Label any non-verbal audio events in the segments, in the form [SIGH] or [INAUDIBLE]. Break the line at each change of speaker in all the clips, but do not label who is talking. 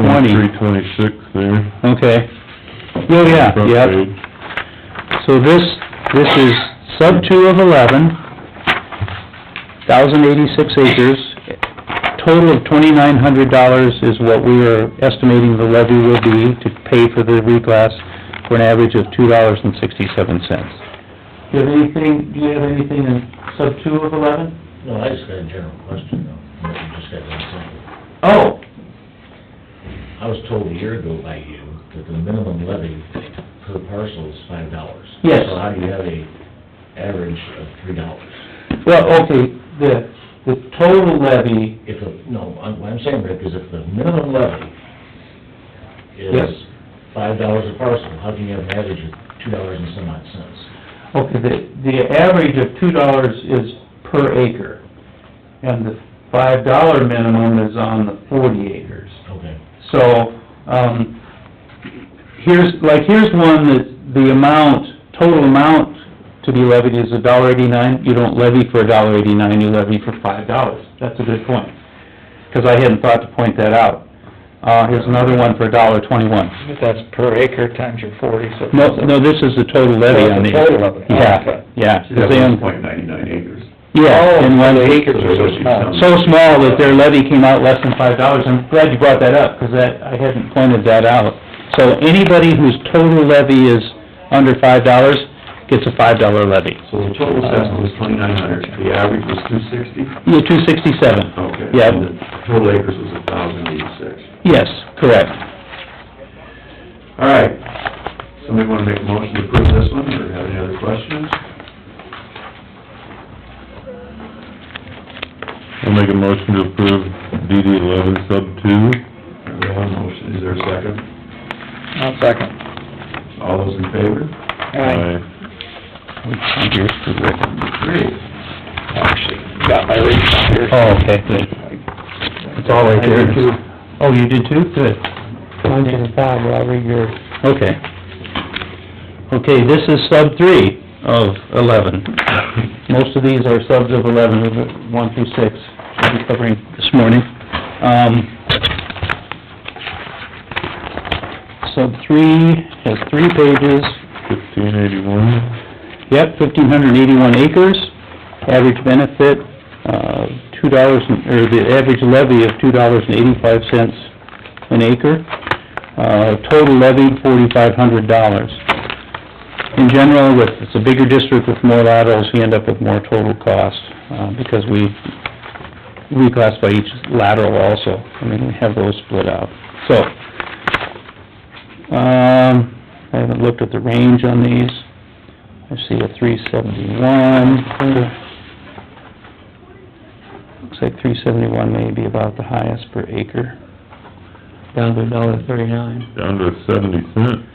twenty,
Three twenty-six there.
okay. Oh, yeah,
front
yeah.
page.
So this, this is sub two of eleven, thousand eighty-six acres. Total of twenty-nine hundred dollars is what we are estimating the levy will be to pay for the reclass for an average of two dollars and sixty-seven cents.
Do you have anything, do you have anything in sub two of eleven?
No, I just got a general question though, but you just got one thing.
Oh,
I was told a year ago by you that the minimum levy per parcel is five dollars.
Yes.
So how do you have a average of three dollars?
well, okay, the, the total levy,
If, a no, I'm, what I'm saying, Rick, is if the minimum levy
Yes.
is five dollars a parcel, how can you have an average of two dollars and some odd cents?
okay, the, the average of two dollars is per acre. And the five dollar minimum is on the forty acres.
Okay.
So, um, here's, like, here's one that the amount, total amount to be levied is a dollar eighty-nine. You don't levy for a dollar eighty-nine, you levy for five dollars. That's a good point, because I hadn't thought to point that out. Uh, here's another one for a dollar twenty-one.
But that's per acre times your forty, so...
No, no, this is the total levy on the...
Total of it, okay.
Yeah, yeah. 'cause they own-
point ninety-nine acres.
Yeah, and one
Oh, the
acre.
acres are so small.
so small that their levy came out less than five dollars. I'm glad you brought that up, 'cause that, I hadn't pointed that out. So anybody whose total levy is under five dollars gets a five dollar levy.
So the total assessment was twenty-nine hundred, the average was two sixty?
Yeah, two sixty-seven.
Okay.
Yeah,
And the total acres was a thousand eighty-six.
yes, correct.
All right, somebody wanna make a motion to approve this one, or have any other questions?
I'll make a motion to approve DD eleven sub two.
There we have a motion, is there a second?
I'll second.
All those in favor?
Aye.
Here's the record.
Great.
Actually, got my reach here.
Oh, okay, good. It's all right there. Oh, you did too? Good.
Mine's in the file, but I'll read yours.
Okay. Okay, this is sub three of eleven. Most of these are subs of eleven, of the one through six, should be covering this morning. Um, sub three has three pages.
Fifteen eighty-one.
Yep, fifteen hundred and eighty-one acres. Average benefit, uh, two dollars, or the average levy of two dollars and eighty-five cents an acre. Uh, total levied forty-five hundred dollars. In general, with, it's a bigger district with more laterals, you end up with more total cost, uh, because we reclassify each lateral also. I mean, we have those split out. So, um, I haven't looked at the range on these. I see a three seventy-one. Looks like three seventy-one may be about the highest per acre.
Down to a dollar thirty-nine.
Down to seventy cents.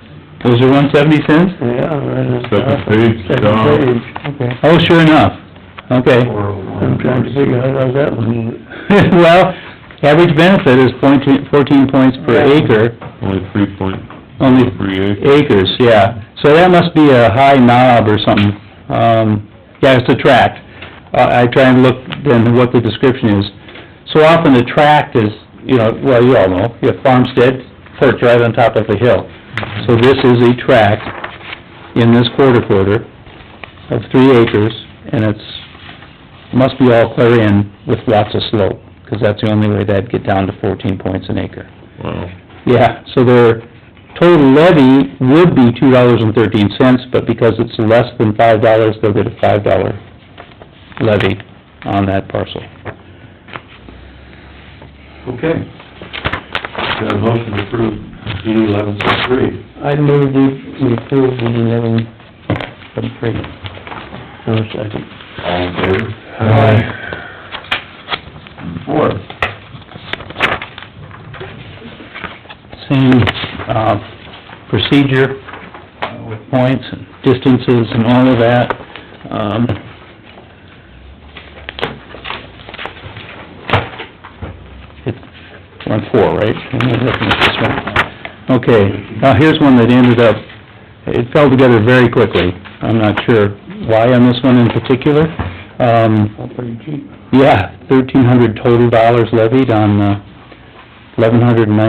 Was there one seventy cents?
Yeah, right.
Second page, Tom.
Okay.
Oh, sure enough, okay. [LAUGHS]
Four oh one.
I'm trying to figure out how that one...
Well, average benefit is point two- 14 points per
Right.
acre,
Only three point,
only
three acres.
acres, yeah. So that must be a high knob or something. Um, yeah, it's a tract. Uh, I try and look then what the description is. So often the tract is, you know, well, you all know, you have farmstead, perch right on top of the hill. So this is a tract in this quarter quarter of three acres, and it's, must be all clear in with lots of slope, 'cause that's the only way that'd get down to fourteen points an acre.
Wow.
Yeah, so their total levy would be two dollars and thirteen cents, but because it's less than five dollars, they'll get a five dollar levy on that parcel.
Okay. Got a motion to approve DD eleven sub three.
I moved it, we approved it, and then... second.
All in favor? Four.
Same, uh, procedure uh, with points and distances and all of that. Um, it- We're on four, right? Am I looking at this one? Okay, now here's one that ended up, it fell together very quickly. I'm not sure why on this one in particular. Um,
Pretty cheap.
yeah, thirteen hundred total dollars levied on, uh, eleven hundred and ninety